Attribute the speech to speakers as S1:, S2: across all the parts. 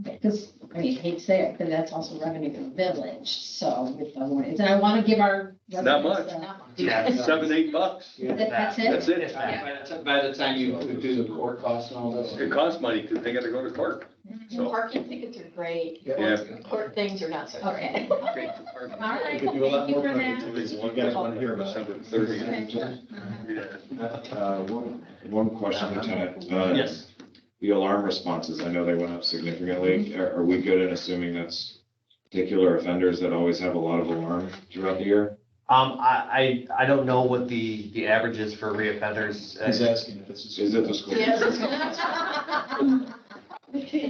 S1: Okay, because I hate to say it, but that's also revenue for the village, so with the warnings, and I want to give our.
S2: Not much.
S1: residents, uh,
S3: Yeah.
S2: Seven, eight bucks,
S1: that- That's it.
S2: that's it.
S3: By the ti- by the time you do the court costs and all this.
S2: It costs money because they gotta go to court. So-
S4: Parking tickets are great.
S2: Yeah.
S4: Court things are not so great.
S1: Okay. All
S3: Great department.
S1: right,
S5: We
S1: thank
S5: could do a lot
S1: you
S5: more
S1: for
S5: parking
S1: that.
S5: tickets. You guys want to hear about it.
S2: December thirtieth.
S1: Okay, sure. Uh-huh.
S2: Yeah.
S5: Uh, One one question, Lieutenant. Uh,
S3: Yes.
S5: The alarm responses, I know they went up significantly. Are are we good in assuming that's particular offenders that always have a lot of alarm throughout the year?
S6: Um, I, I, I don't know what the, the average is for Uh, reoffenders.
S7: He's asking if it's.
S5: Is it the school?
S4: Yes.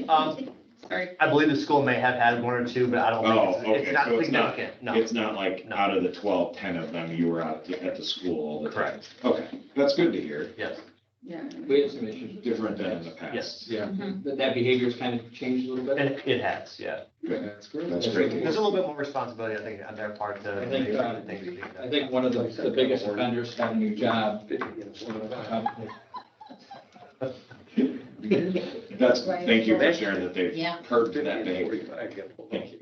S6: Um,
S1: Sorry.
S6: I believe the school may have had one or two, but I don't
S5: Oh,
S6: think, it's-
S5: okay,
S6: it's not
S5: so it's not-
S6: significant, no.
S5: It's not like out of the 12, 10 of them, you were out at the school all the time?
S6: Correct,
S5: Correct. Okay, that's good to hear.
S6: yes,
S1: Yeah.
S3: We had some issues. Mm-hmm.
S5: Different than in the past.
S6: yes,
S7: Yeah.
S3: That, that behavior's kind of changed a little
S6: and
S3: bit.
S6: it it has, yeah.
S7: That's great.
S5: That's great.
S6: There's a little bit more responsibility, I think, on their part to.
S3: I think, uh, I think one of the, the biggest offenders got a new job.
S5: That's, thank you for
S1: Right.
S5: sharing that they've
S1: Yeah,
S5: curbed that
S2: Fifteen,
S5: behavior.
S2: forty-five, yeah.
S5: Thank you.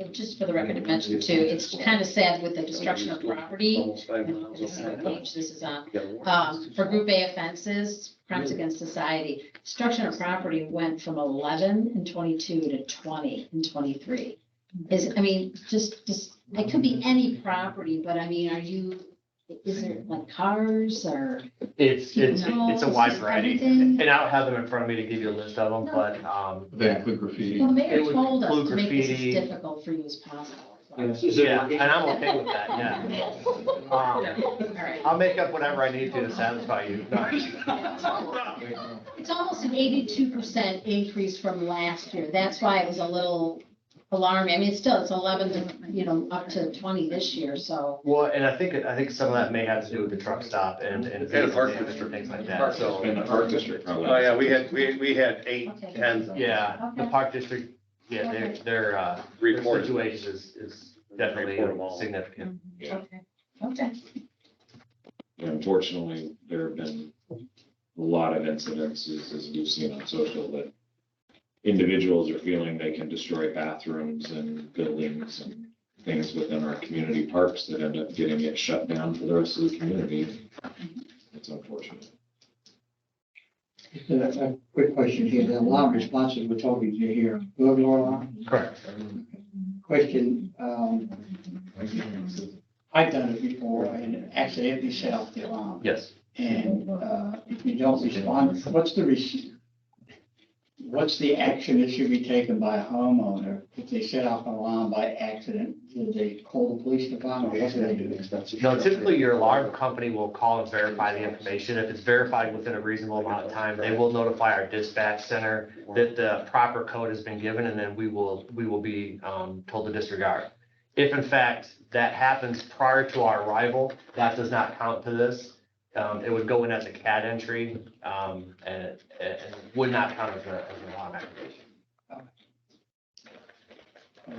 S1: and just for the record to mention too, it's kind of sad with the destruction of property.
S2: Almost five
S1: and
S2: miles.
S1: This is on page, this is on
S2: Yeah, we're-
S1: Um, for group A offenses, crimes against society, destruction of property went from eleven and twenty-two to twenty and twenty-three. Is, I mean, just, just, it could be any property, but I mean, are you, is it like cars or?
S6: It's, it's, it's a wide
S1: No,
S6: variety,
S1: everything.
S6: and I don't have them in front of me to give you a list of them, but, um,
S7: They include graffiti.
S1: Well, Mayor
S6: It would
S1: told us to
S6: include
S1: make this as
S6: graffiti.
S1: difficult for you as possible.
S3: Yes. Is it
S6: yeah,
S3: working?
S6: and I'm okay with that, yeah. Um,
S1: All right.
S6: I'll make up whatever I need to to satisfy you. No.
S1: It's almost an eighty-two percent increase from last year. That's why it was a little alarming. I mean, it's still, it's eleven to, you know, up to twenty this year, so.
S6: Well, and I think, I think some of that may have to do with the truck stop and, and.
S2: And the park
S6: and
S2: district.
S6: Things like that, so,
S5: In the park district, probably.
S2: Oh, yeah, we had, we, we had eight,
S1: Okay.
S2: ten
S6: yeah, the
S1: Okay.
S6: park district, yeah, their, their, uh, their
S2: reports.
S6: situation is, is definitely
S2: Report 'em all.
S6: significant.
S5: Yeah.
S1: Okay. Okay.
S5: Unfortunately, there have been a lot of incidences, as we've seen on social, that individuals are feeling they can destroy bathrooms and buildings and things within our community parks that end up getting it shut down for the rest of the community. It's unfortunate.
S8: A quick question here, the alarm responses were told you to hear, burglar alarm,
S6: Correct.
S8: question, um, I've done it before and accidentally set off the alarm,
S6: Yes.
S8: and, uh, if you don't respond, what's the res- what's the action that should be taken by a homeowner if they set off an alarm by accident, do they call the police department, or what do they do?
S6: No, typically your alarm company will call and verify the information. If it's verified within a reasonable amount of time, they will notify our dispatch center that the proper code has been given and then we will, we will be, um, told to disregard. If in fact that happens prior to our arrival, that does not count to this. Um, it would go in as a CAD entry, um, and, and would not count as a, as an alarm activation.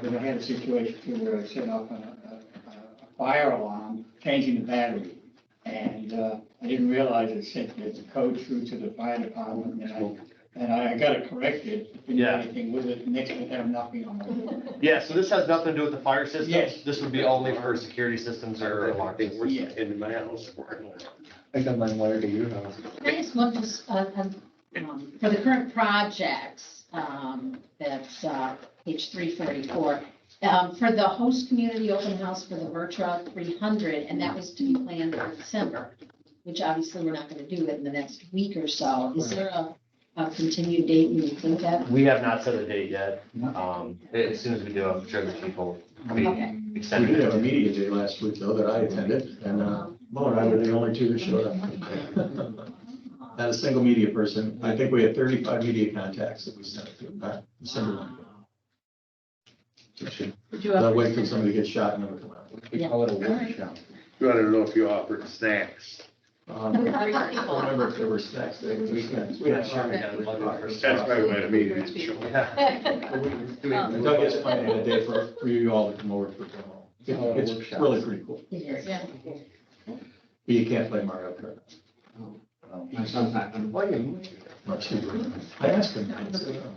S8: We had a situation where I set off a, a, a- a fire alarm, changing the battery. And, uh, I didn't realize it sent the the code through to the fire department and I, and I got it corrected. Didn't do
S6: Yeah.
S8: anything with it, next time I'm knocking on the door.
S6: Yeah, so this has nothing to do with the fire system.
S8: Yes.
S6: This would be only for security systems or alarm
S2: They
S6: systems.
S2: were
S8: Yeah.
S2: in my house.
S7: I got mine wired to your house.
S1: Can I just look just, uh, um, for the current projects, um, that's, uh, page three forty-four. Um, for the host community open house for the Vertra three hundred, and that was to be planned for December, which obviously we're not gonna do in the next week or so. Is there a, a continued date you think that?
S6: We have not set a date yet. Um, as soon as we do, I'm sure the people will be
S1: Okay.
S7: We
S6: extended.
S7: did have a media day last week though that I attended and, uh, Mo and I were the only two that showed up. Not a single media person. I think we had thirty-five media contacts that we sent to, uh, December one. That wait till somebody gets shot and never come out.
S1: We
S3: call it a
S1: workshop.
S2: You wanted to know if you offered snacks.
S7: Um, I don't remember if there were snacks there. We had Sherman down there.
S2: That's my way to meet it.
S6: Yeah. Do we-
S3: Um,
S7: And Doug is planning a day for, for you all to come over for demo. It's it's really pretty cool,
S1: Yeah.
S7: but you can't play Mario Kart.
S3: My son's not gonna-
S7: Much cheaper. I asked him. I said, "Oh,